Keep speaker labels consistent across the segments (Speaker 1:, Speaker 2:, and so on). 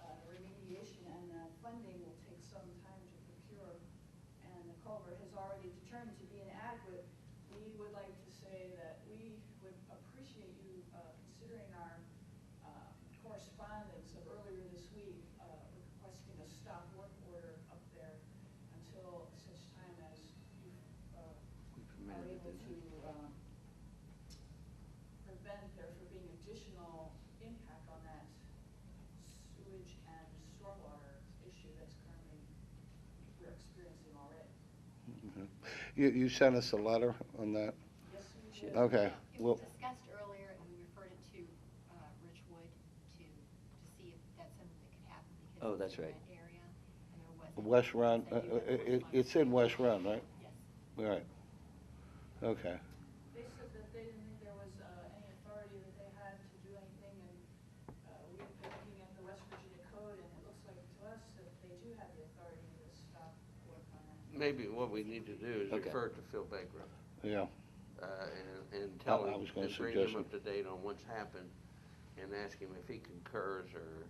Speaker 1: uh, culvert has already determined to be inadequate, we would like to say that we would appreciate you uh, considering our uh, correspondence of earlier this week uh, requesting a stop work order up there until such time as you
Speaker 2: We
Speaker 1: uh, are
Speaker 2: permitted it,
Speaker 1: able to
Speaker 2: didn't
Speaker 1: um, prevent there from being additional impact on that sewage and stormwater issue that's currently we're experiencing already.
Speaker 3: Mhm. You, you sent us a letter on that?
Speaker 1: Yes, we
Speaker 2: Sure.
Speaker 1: should.
Speaker 3: Okay,
Speaker 4: It
Speaker 3: well,
Speaker 4: was discussed earlier, and we referred it to uh, Rich Wood to, to see if that's something that could happen because.
Speaker 2: Oh,
Speaker 4: it's
Speaker 2: that's
Speaker 4: in
Speaker 2: right.
Speaker 4: that area, and there wasn't-
Speaker 3: West Run,
Speaker 4: so
Speaker 3: uh,
Speaker 4: you have
Speaker 3: it,
Speaker 4: correspondence.
Speaker 3: it's in West Run, right?
Speaker 4: Yes.
Speaker 3: Right. Okay.
Speaker 1: They said that they didn't think there was uh, any authority that they had to do anything, and uh, we've been looking at the West Virginia Code, and it looks like to us that they do have the authority to stop work on that.
Speaker 5: Maybe what we need to do is
Speaker 2: Okay.
Speaker 5: refer to Phil Baker,
Speaker 3: Yeah,
Speaker 5: uh, and, and tell
Speaker 3: I- I
Speaker 5: him,
Speaker 3: was gonna
Speaker 5: and bring him
Speaker 3: suggest
Speaker 5: up to date on what's happened, and ask him if he concurs or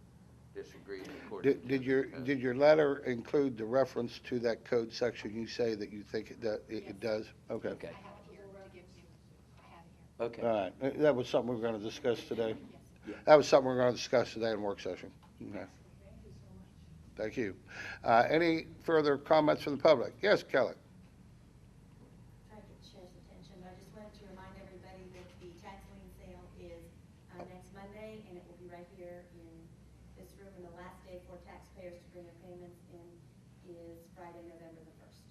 Speaker 5: disagrees according to.
Speaker 3: did, did your,
Speaker 5: the code.
Speaker 3: did your letter include the reference to that code section you say that you think it, that it-
Speaker 4: Yes.
Speaker 3: it does? Okay.
Speaker 2: Okay.
Speaker 4: I have it here to give you. I have it here.
Speaker 2: Okay.
Speaker 3: All right, Uh, that was something we are gonna discuss today.
Speaker 4: Yes.
Speaker 3: That was something we are gonna discuss today in work session. Okay,
Speaker 1: Thank you so much.
Speaker 3: thank you. Uh, any further comments from the public? Yes, Kelly?
Speaker 6: try to get the chair's attention, but I just wanted to remind everybody that the tax lien sale is uh, next Monday, and it will be right here in this room, and the last day for taxpayers to bring their payments in is Friday, November the first.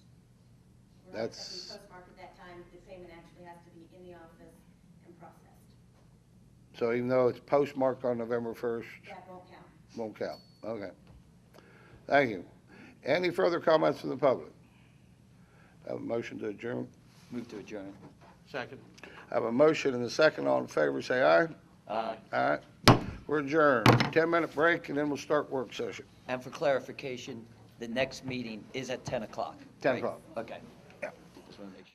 Speaker 6: We're not
Speaker 3: That's-
Speaker 6: accepting postmark at that time, the payment actually has to be in the office and processed.
Speaker 3: So even though it's postmarked on November first,
Speaker 6: That won't count.
Speaker 3: won't count, okay. Thank you. Any further comments from the public? Have a motion to adjourn?
Speaker 2: Move to adjourn.
Speaker 5: Second?
Speaker 3: Have a motion and a second, all in favor, say aye.
Speaker 2: Uh,
Speaker 3: Aye. We're adjourned. Ten-minute break, and then we'll start work session.
Speaker 2: And for clarification, the next meeting is at 10 o'clock.
Speaker 3: 10
Speaker 2: right?
Speaker 3: o'clock.
Speaker 2: Okay. Just wanna make sure.